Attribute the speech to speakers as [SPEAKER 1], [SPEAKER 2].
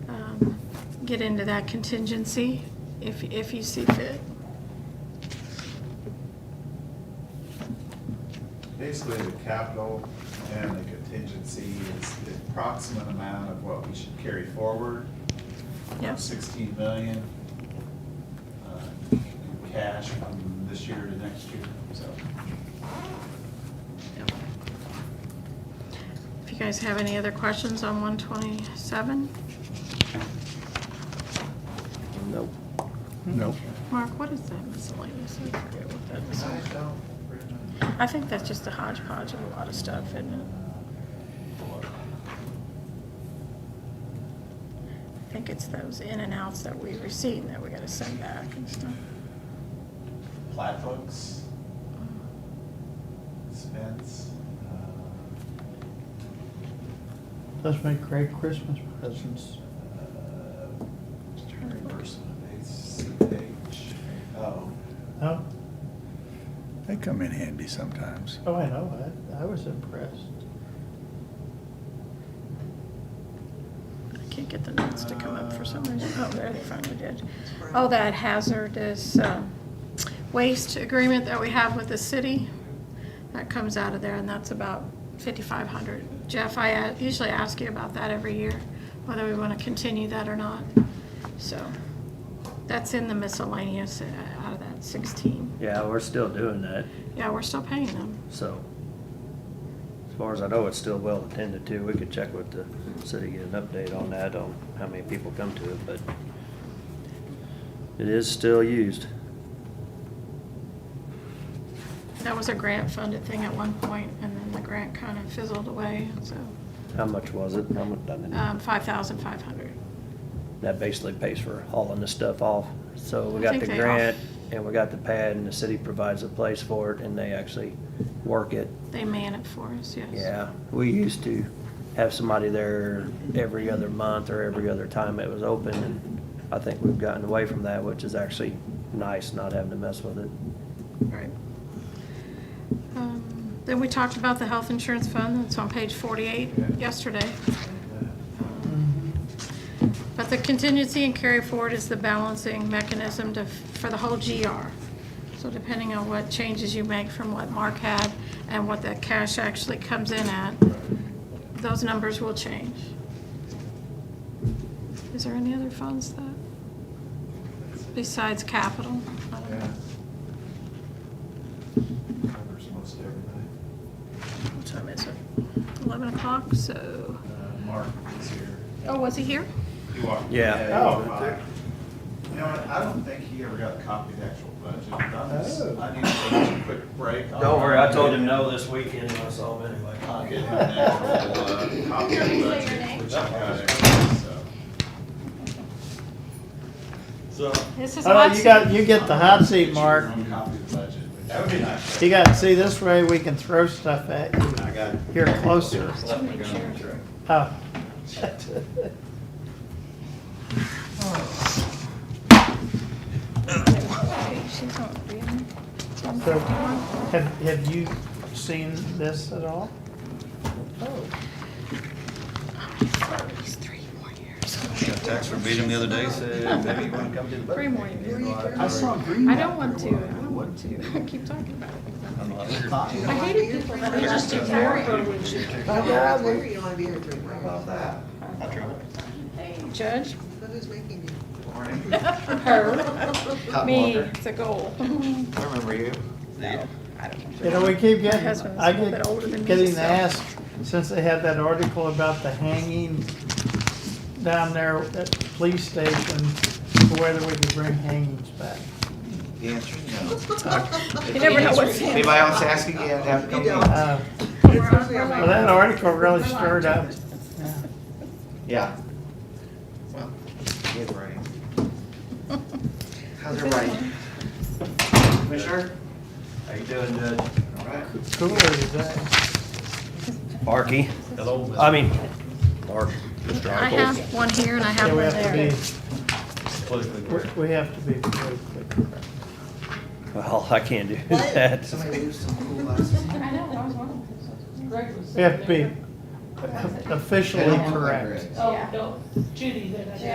[SPEAKER 1] um, get into that contingency if, if you see fit.
[SPEAKER 2] Basically, the capital and the contingency is the approximate amount of what we should carry forward.
[SPEAKER 1] Yes,
[SPEAKER 2] Sixteen million uh, in cash from this year to next year, so.
[SPEAKER 1] if you guys have any other questions on one twenty-seven,
[SPEAKER 3] Nope.
[SPEAKER 4] No.
[SPEAKER 1] Mark, what is that miscellaneous? I forget what that is.
[SPEAKER 2] don't
[SPEAKER 1] I think that's just a hodgepodge of a lot of stuff, isn't it? I think it's those in and outs that we received that we gotta send back and stuff.
[SPEAKER 2] Plat books, expense, uh,
[SPEAKER 3] Let's make great Christmas presents.
[SPEAKER 2] uh, reimbursement, ACH, oh.
[SPEAKER 3] Oh,
[SPEAKER 4] They come in handy sometimes.
[SPEAKER 3] oh, I know, I, I was impressed.
[SPEAKER 1] I can't get the notes to come up for some reason. Oh, there, they finally did. Oh, that hazardous um, waste agreement that we have with the city, that comes out of there, and that's about fifty-five hundred. Jeff, I uh, usually ask you about that every year, whether we want to continue that or not. So, that's in the miscellaneous uh, out of that sixteen.
[SPEAKER 5] Yeah, we're still doing that,
[SPEAKER 1] Yeah, we're still paying them.
[SPEAKER 5] so. As far as I know, it's still well attended to. We could check with the city, get an update on that, on how many people come to it, but it is still used.
[SPEAKER 1] That was a grant-funded thing at one point, and then the grant kind of fizzled away, so,
[SPEAKER 5] How much was it? How much, I mean,
[SPEAKER 1] um, five thousand five hundred.
[SPEAKER 5] that basically pays for hauling the stuff off. So we
[SPEAKER 1] I
[SPEAKER 5] got
[SPEAKER 1] think
[SPEAKER 5] the
[SPEAKER 1] they
[SPEAKER 5] grant
[SPEAKER 1] off-
[SPEAKER 5] and we got the pad and the city provides a place for it and they actually work it.
[SPEAKER 1] They man it for us, yes.
[SPEAKER 5] Yeah, we used to have somebody there every other month or every other time it was open, and I think we've gotten away from that, which is actually nice, not having to mess with it.
[SPEAKER 1] Right. Um, Then we talked about the health insurance fund, it's on page forty-eight yesterday.
[SPEAKER 3] Mm-hmm.
[SPEAKER 2] Mm-hmm.
[SPEAKER 1] But the contingency and carry forward is the balancing mechanism to, for the whole GR. So depending on what changes you make from what Mark had and what that cash actually comes in at, those numbers will change. Is there any other funds that, besides capital? I don't know.
[SPEAKER 2] Yeah. Covers most everything.
[SPEAKER 1] What time is it? Eleven o'clock, so.
[SPEAKER 2] Uh, Mark is here.
[SPEAKER 1] Oh, was he here?
[SPEAKER 2] You are?
[SPEAKER 5] Yeah.
[SPEAKER 3] Oh.
[SPEAKER 2] You know, what? I don't think he ever got a copy of the actual budget. I'm just-
[SPEAKER 3] Oh.
[SPEAKER 2] I need to take a quick break.
[SPEAKER 5] this weekend when I saw him anyway.
[SPEAKER 2] I'll get him an actual, uh, copy of the budget, which I got it, so.
[SPEAKER 3] So.
[SPEAKER 1] This is
[SPEAKER 3] Oh,
[SPEAKER 1] my
[SPEAKER 3] you got,
[SPEAKER 1] seat.
[SPEAKER 3] you get the hot seat, Mark.
[SPEAKER 2] Get your own copy of the budget, which- That would be nice.
[SPEAKER 3] You got, see, this way we can throw stuff at you.
[SPEAKER 2] I got it.
[SPEAKER 3] Here, closer.
[SPEAKER 1] Too many chairs.
[SPEAKER 3] Oh.
[SPEAKER 1] Okay, she's not reading.
[SPEAKER 3] So, have, have you seen this at all? Oh.
[SPEAKER 1] It's three more years.
[SPEAKER 6] Got a text from Beadham the other day, said, maybe you wanna come to the budget.
[SPEAKER 1] Three more years.
[SPEAKER 2] I saw green.
[SPEAKER 1] I don't want to, I don't want to. Keep talking about it.
[SPEAKER 6] I'm not here.
[SPEAKER 1] I hated people that were just ignoring.
[SPEAKER 7] Well, yeah, I agree, you don't want to be here three months.
[SPEAKER 2] that.
[SPEAKER 1] Hey, Judge,
[SPEAKER 7] But who's making you?
[SPEAKER 1] her, me, it's a goal.
[SPEAKER 2] I remember you.
[SPEAKER 1] I don't know.
[SPEAKER 3] You know, we keep
[SPEAKER 1] My
[SPEAKER 3] getting,
[SPEAKER 1] husband's
[SPEAKER 3] I
[SPEAKER 1] a little bit older than
[SPEAKER 3] get,
[SPEAKER 1] me,
[SPEAKER 3] getting
[SPEAKER 1] so-
[SPEAKER 3] asked, since they had that article about the hanging down there at the police station, whether we could bring hangings back.
[SPEAKER 8] The answer is no.
[SPEAKER 1] You never know what's in it.
[SPEAKER 8] Anybody else ask again, have
[SPEAKER 7] You
[SPEAKER 8] no.
[SPEAKER 7] don't.
[SPEAKER 3] Uh,
[SPEAKER 7] Especially on
[SPEAKER 3] Well,
[SPEAKER 7] my-
[SPEAKER 3] that article really stirred up. Yeah.
[SPEAKER 8] Yeah. Well, good writing. How's everybody? Commissioner?
[SPEAKER 5] How you doing, Judge?
[SPEAKER 8] All right.
[SPEAKER 3] Cooler today.
[SPEAKER 5] Barky.
[SPEAKER 6] Hello.
[SPEAKER 5] I mean, Bark.
[SPEAKER 1] I have one here and I have
[SPEAKER 3] Yeah, we
[SPEAKER 1] one
[SPEAKER 3] have
[SPEAKER 1] there.
[SPEAKER 3] to
[SPEAKER 6] Politically
[SPEAKER 3] be, we- we have to be very quick.
[SPEAKER 5] Well, I can't do that.
[SPEAKER 8] Somebody lose some cool glasses.
[SPEAKER 1] I know, that was one of
[SPEAKER 3] We have to be officially correct.
[SPEAKER 9] Oh, no, Judy, then I